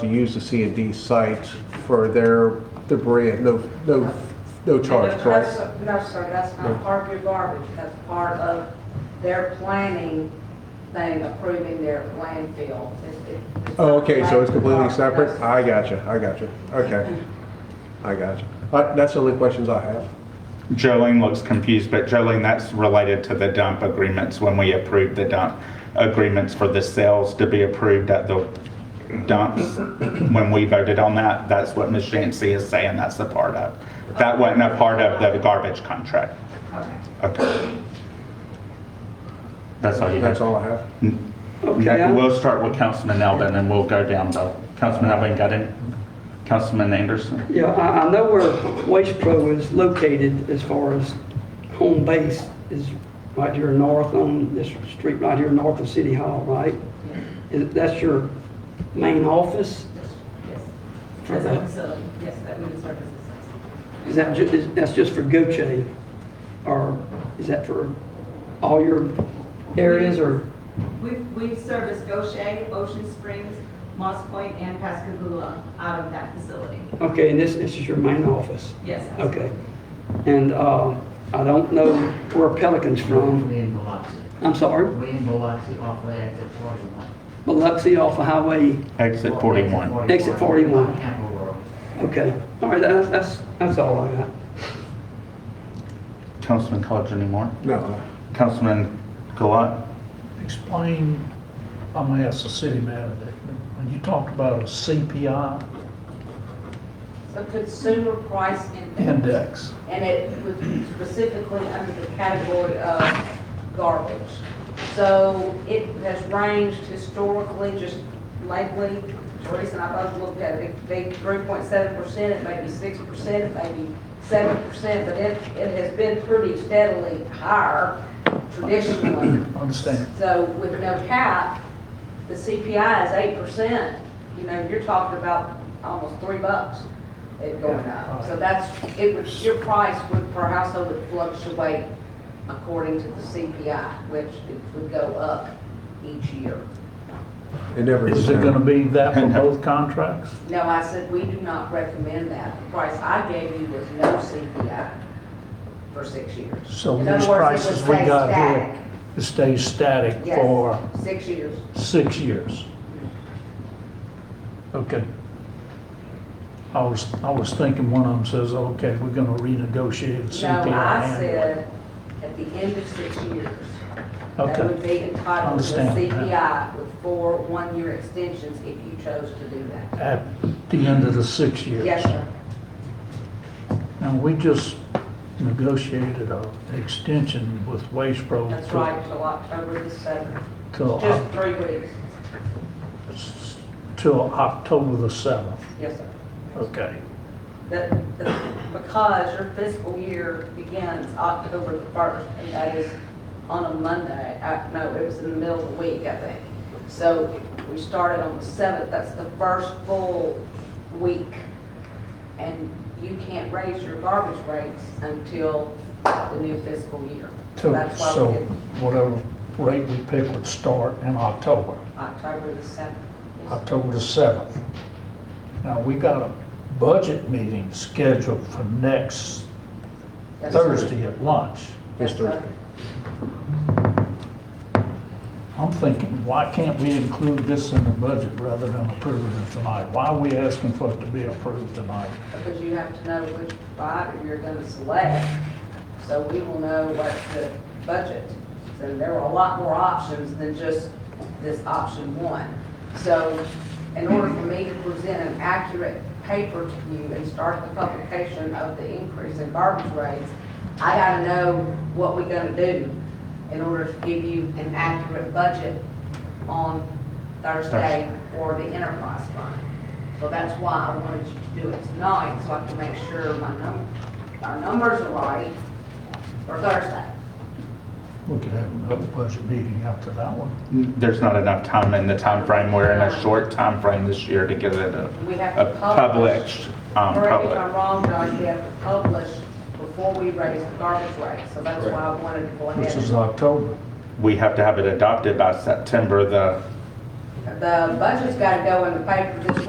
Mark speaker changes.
Speaker 1: to use the C and D site for their debris at no, no, no charge,
Speaker 2: That's-
Speaker 1: correct?
Speaker 2: No, sir, that's not part of your garbage, that's part of their planning thing, approving their landfill. It's- it- it's
Speaker 1: Oh, okay, so it's
Speaker 2: not
Speaker 1: completely
Speaker 2: garbage.
Speaker 1: separate?
Speaker 2: That's-
Speaker 1: I gotcha, I gotcha, okay. I gotcha. Uh, That's the only questions I have.
Speaker 3: Jolene looks confused, but Jolene, that's related to the dump agreements when we approved the dump agreements for the sales to be approved at the dumps. When we voted on that, that's what Ms. Shancy is saying that's a part of. That wasn't a part of the garbage contract.
Speaker 2: Okay.
Speaker 3: Okay. That's all you
Speaker 1: That's
Speaker 3: have.
Speaker 1: all I have.
Speaker 3: Okay, we'll start with Councilman Elbin and we'll go down to Councilman Elbin, got it? Councilman Anderson?
Speaker 4: Yeah, I, I know where Waste Pro is located as far as home base is right here north on this street right here north of City Hall, right? Is- That's your main office?
Speaker 5: Yes,
Speaker 4: for
Speaker 5: that's a
Speaker 4: the-
Speaker 5: facility, yes, that women's services.
Speaker 4: Is that ju, is, that's just for Goche? Or is that for all your areas or?
Speaker 5: We, we service Goshen, Ocean Springs, Moss Point, and Pascagoula out of that facility.
Speaker 4: Okay, and this, this is your main office?
Speaker 5: Yes.
Speaker 4: Okay. And, uh, I don't know where Pelican's from.
Speaker 6: Way in Biloxi,
Speaker 4: I'm sorry,
Speaker 6: way in Biloxi off of exit 41.
Speaker 4: Biloxi off of Highway
Speaker 3: Exit 41.
Speaker 4: Exit 41.
Speaker 6: Campbell World.
Speaker 4: Okay, all right, that's, that's, that's all I got.
Speaker 3: Councilman College anymore?
Speaker 1: No,
Speaker 3: Councilman Gilat?
Speaker 7: Explain, I'm gonna ask the city manager, when you talked about a CPI
Speaker 2: So consumer price index,
Speaker 7: index,
Speaker 2: and it was specifically under the category of garbage. So it has ranged historically, just lately, Teresa and I both looked at it, it may be three point seven percent, it may be six percent, it may be seven percent, but it, it has been pretty steadily higher traditionally.
Speaker 7: understand?
Speaker 2: So with no cap, the CPI is eight percent, you know, you're talking about almost three bucks it going up. So that's, it would, your price would, per household would fluctuate according to the CPI, which it would go up each year.
Speaker 1: it never goes
Speaker 7: Is it gonna
Speaker 1: down.
Speaker 7: be that for both contracts?
Speaker 2: No, I said, we do not recommend that. The price I gave you was no CPI for six years.
Speaker 7: So
Speaker 2: In other
Speaker 7: these
Speaker 2: words, it would
Speaker 7: prices we
Speaker 2: stay
Speaker 7: got
Speaker 2: static.
Speaker 7: here, it stays static
Speaker 2: Yes,
Speaker 7: for
Speaker 2: Six years.
Speaker 7: six years? Okay. I was, I was thinking one of them says, okay, we're gonna renegotiate the
Speaker 2: No,
Speaker 7: CPI.
Speaker 2: I
Speaker 7: annually.
Speaker 2: said, at the end of six years, that would
Speaker 7: Okay,
Speaker 2: be entitled to
Speaker 7: Understand.
Speaker 2: CPI with four one-year extensions if you chose to do that.
Speaker 7: at the end of the six years.
Speaker 2: Yes, sir.
Speaker 7: And we just negotiated a extension with Waste Pro.
Speaker 2: That's right, till October the seventh,
Speaker 7: Till,
Speaker 2: just three weeks.
Speaker 7: till October the 7th,
Speaker 2: Yes, sir.
Speaker 7: okay.
Speaker 2: That, that- because your fiscal year begins October the first, and that is on a Monday. I, no, it was in the middle of the week, I think. So we started on the seventh, that's the first full week. And you can't raise your garbage rates until the new fiscal year. So
Speaker 7: So,
Speaker 2: that's why
Speaker 7: so
Speaker 2: we did
Speaker 7: whatever rate we pick would start in October,
Speaker 2: October the seventh.
Speaker 7: October the 7th. Now, we got a budget meeting scheduled for next
Speaker 2: Yes, sir.
Speaker 7: Thursday at lunch.
Speaker 2: Yes,
Speaker 1: It's
Speaker 2: sir.
Speaker 1: Thursday.
Speaker 7: I'm thinking, why can't we include this in the budget rather than approve it tonight? Why are we asking for it to be approved tonight?
Speaker 2: Because you have to know which provider you're gonna select, so we will know what the budget. So there were a lot more options than just this option one. So in order for me to present an accurate paper to you and start the publication of the increase in garbage rates, I gotta know what we're gonna do in order to give you an accurate budget on Thursday for the enterprise fund. So that's why I wanted you to do it tonight, so I can make sure my num, our numbers are right for Thursday.
Speaker 7: We could have another budget meeting after that one.
Speaker 3: There's not enough time in the time frame. We're in a short time frame this year to get it a
Speaker 2: We have
Speaker 3: a
Speaker 2: to publish.
Speaker 3: published, um,
Speaker 2: Correct me if I'm
Speaker 3: public.
Speaker 2: wrong, Josh, we have to publish before we raise the garbage rate, so that's why I wanted to go
Speaker 7: Which
Speaker 2: ahead.
Speaker 7: is October.
Speaker 3: We have to have it adopted by September the
Speaker 2: The budget's gotta go in the paper this